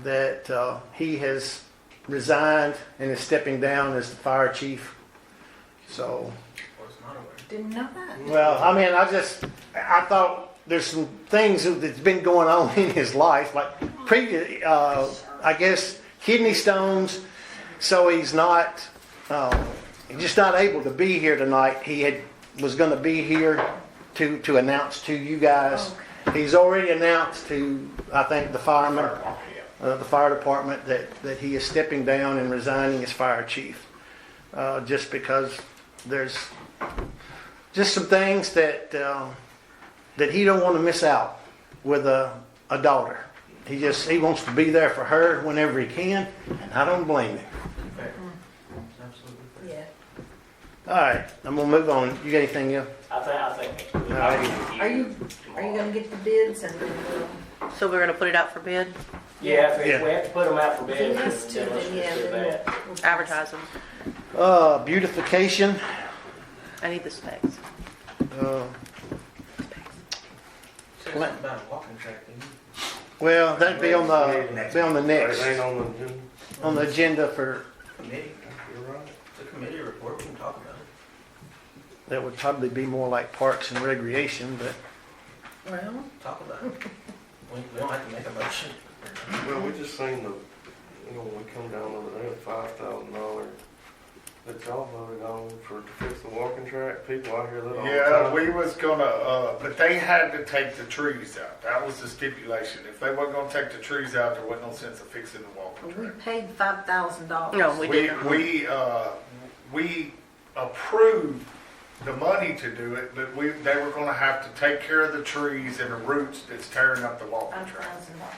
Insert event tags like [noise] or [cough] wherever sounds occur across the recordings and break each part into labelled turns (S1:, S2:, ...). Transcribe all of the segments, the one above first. S1: that uh, he has resigned and is stepping down as the fire chief. So,
S2: Didn't know that.
S1: well, I mean, I just, I thought there's some things that's been going on [laughs] in his life, like previous, uh, I guess, kidney stones. So he's not, uh, he's just not able to be here tonight. He had, was going to be here to, to announce to you guys. He's already announced to, I think, the firemen, uh, the fire department, that, that he is stepping down and resigning as fire chief. Uh, just because there's just some things that uh, that he don't want to miss out with a, a daughter. He just he wants to be there for her whenever he can, and I don't blame him.
S2: Yeah.
S1: All right, I'm gonna move on. You got anything else?
S3: I think, I think.
S2: Are you, are you gonna get the bids and uh, then we'll?
S4: So we're gonna put it out for bid,
S3: Yeah, if
S1: Yeah.
S3: if we have to put them out for
S2: If he
S3: bid, then let's
S2: has to,
S3: pursue
S2: then yeah,
S3: that.
S2: then we'll. we'll-
S4: advertise them.
S1: Uh, beautification.
S4: I need the specs.
S1: Uh,
S5: Something about a walking track, didn't you?
S1: well, that'd be on the be on the next
S6: Everything on the agenda?
S1: on the agenda for
S5: Committee,
S6: You're right.
S5: the committee report, we can talk about it.
S1: that would probably be more like parks and recreation, but
S2: Well,
S5: Talk about it. We, we don't have to make a motion.
S6: Well, we just seen the, you know, when we come down over there, the five thousand dollar that y'all voted on for to fix the walking track. People out here that all the
S7: Yeah,
S6: time.
S7: we was gonna, uh, but they had to take the trees out. That was the stipulation. If they weren't gonna take the trees out, there wasn't no sense of fixing the walking
S2: we
S7: track.
S2: paid five thousand dollars.
S4: No, we
S7: We,
S4: didn't.
S7: we, uh, we approved the money to do it, but we, they were gonna have to take care of the trees and the roots that's tearing up the walking
S2: Five
S7: track.
S2: thousand dollars.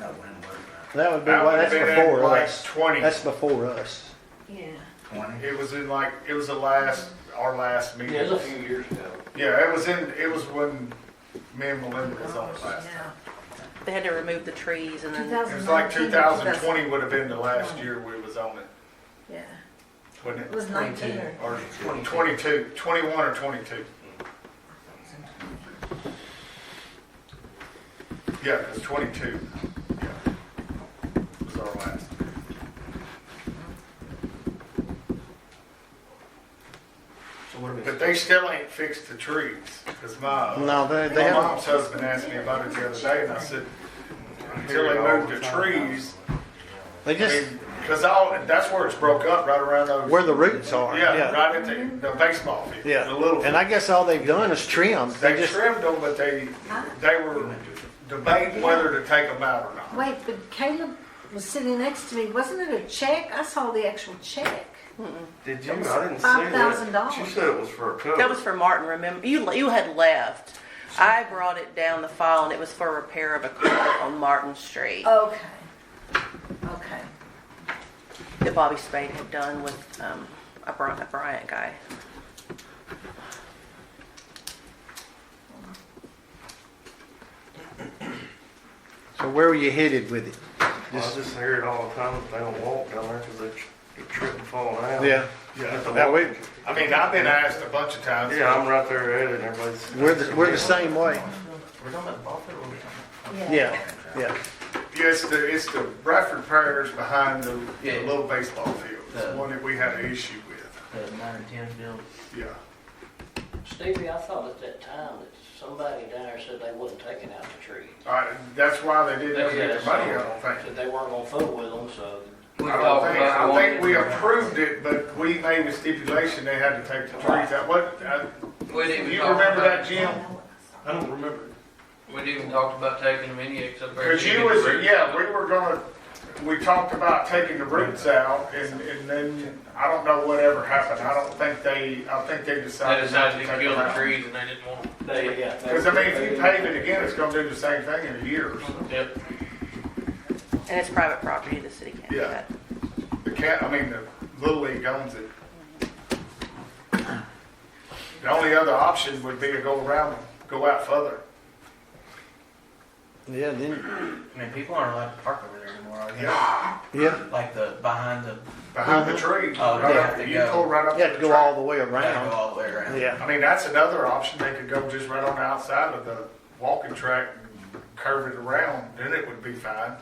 S5: No, we didn't worry about
S1: that would be
S7: That
S1: well,
S7: would've
S1: that's
S7: been in
S1: before
S7: like
S1: us.
S7: Twenty.
S1: That's before us.
S2: Yeah.
S5: Twenty.
S7: It was in like, it was the last, our last meeting.
S3: Yeah, it was a few years ago.
S7: Yeah, it was in, it was when me and Melinda was on it last time.
S2: Yeah.
S4: They had to remove the trees and then,
S2: 2019
S7: It was like
S2: or
S7: 2020 would have been the last year we was on it,
S2: Yeah, it
S7: wouldn't it?
S2: was nineteen or.
S7: Or 22, 21 or 22? Yeah, it was 22. Yeah, It was our last.
S5: So what are we?
S7: But they still ain't fixed the trees, because my, my
S1: No, they, they haven't.
S7: mom's husband asked me about it the other day, and I said,
S6: I hear
S7: until
S6: it
S7: they
S6: all
S7: move the
S6: time.
S7: trees,
S1: They
S7: I
S1: just
S7: mean, because all, that's where it's broke up, right around those.
S1: where the roots are.
S7: Yeah, right at the, the baseball field.
S1: Yeah,
S7: The little.
S1: and I guess all they've done is trim. They
S7: They
S1: just
S7: trimmed them, but they, they were debating whether to take them out or not.
S2: Wait, but Caleb was sitting next to me, wasn't it a check? I saw the actual check.
S6: Did you? I didn't see
S2: Five
S6: that.
S2: thousand dollars.
S6: She said it was for a cover.
S4: that was for Martin, remember? You, you had left. I brought it down the file and it was for repair of a culvert on Martin Street
S2: Okay, okay.
S4: that Bobby Spade had done with, um, a Bryant, a Bryant guy.
S1: So where were you headed with it?
S6: Well, I just hear it all the time. that They don't walk down there because they tr- they trip and fall down.
S1: Yeah.
S6: At the
S1: Now, we,
S6: walking-
S7: I mean, I've been asked a bunch of times.
S6: Yeah, I'm right there at it, and everybody's.
S1: we're the, we're the same way.
S5: We're talking about the ball field, or we're talking
S1: Yeah, yeah.
S7: Yeah, it's the, it's the Bradford Parish behind the, the
S5: Yeah.
S7: little baseball field. It's the
S5: Yeah.
S7: one that we had an issue with,
S5: about the nine and ten field?
S7: yeah.
S3: Stevie, I thought at that time that somebody down there said they wasn't taking out the tree.
S7: Uh, that's why they
S3: They
S7: didn't get
S3: said-
S7: the money, I don't think.
S3: Said they weren't gonna fool with them, so.
S5: We
S7: I don't think, I think we approved it, but we made a stipulation they had to take the trees out. What, uh,
S8: We didn't
S7: you
S8: talk
S7: remember that,
S8: about,
S7: Jim? I don't remember.
S8: We didn't even talk about taking them any except for.
S7: Because you was, yeah, we were gonna, we talked about taking the roots out and, and then, I don't know whatever happened. I don't think they, I think they
S8: They
S7: decided not to
S8: decided
S7: take
S8: to kill
S7: them
S8: the
S7: out.
S8: trees and they didn't want them.
S3: They, yeah. they-
S7: Because I mean, if
S3: they-
S7: you pave it again, it's gonna do the same thing in a year.
S8: Yep.
S4: And it's private property, the city can't do
S7: Yeah.
S4: that.
S7: The cat, I mean, the Little League owns it. The only other option would be to go around, and go out further.
S1: Yeah, then,
S5: I mean, people aren't allowed to park over there anymore, are they?
S7: Yeah,
S1: yeah.
S5: Like the, behind the,
S7: behind the tree.
S5: Oh, they have to
S7: You
S5: go.
S7: pull right up
S1: You have to
S7: the
S1: go
S7: track.
S1: all the way
S5: gotta go
S1: around.
S5: all the way around.
S1: Yeah.
S7: I mean, that's another option. They could go just right on the outside of the walking track and curve it around, then it would be fine.